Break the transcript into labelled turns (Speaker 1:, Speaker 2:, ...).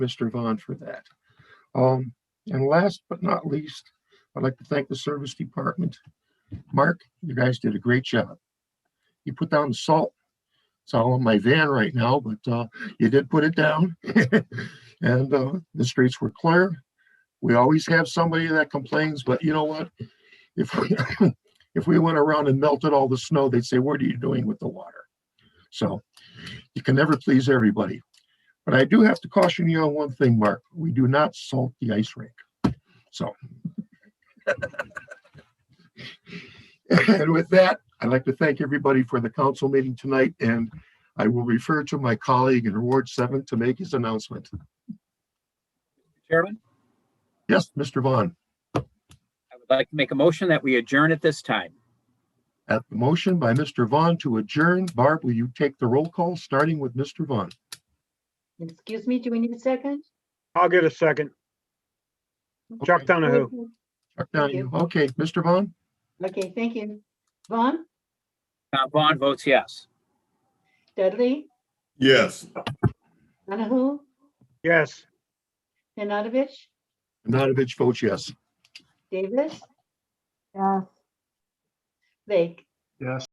Speaker 1: Mr. Vaughn for that. Um, and last but not least, I'd like to thank the service department. Mark, you guys did a great job. You put down the salt. It's all on my van right now, but, uh, you did put it down. And, uh, the streets were clear. We always have somebody that complains, but you know what? If we, if we went around and melted all the snow, they'd say, what are you doing with the water? So you can never please everybody. But I do have to caution you on one thing, Mark. We do not salt the ice rink. So. And with that, I'd like to thank everybody for the council meeting tonight, and I will refer to my colleague in Ward Seven to make his announcement.
Speaker 2: Chairman,
Speaker 1: Yes, Mr. Vaughn,
Speaker 2: I would like to make a motion that we adjourn at this time.
Speaker 1: at the motion by Mr. Vaughn to adjourn, Barb, will you take the roll call, starting with Mr. Vaughn?
Speaker 3: Excuse me, do we need a second?
Speaker 4: I'll get a second. Chuck
Speaker 1: Okay,
Speaker 4: Donahue,
Speaker 1: Chuck
Speaker 3: Thank
Speaker 1: Donahue. Okay, Mr. Vaughn,
Speaker 3: Okay, thank you. Vaughn,
Speaker 2: Tom Vaughn votes yes.
Speaker 3: Dudley,
Speaker 5: Yes.
Speaker 3: Donahue,
Speaker 4: yes.
Speaker 3: Nanadovich,
Speaker 1: Nanavich votes yes.
Speaker 3: Davis,
Speaker 6: Yes.
Speaker 3: Lake.
Speaker 4: Yes.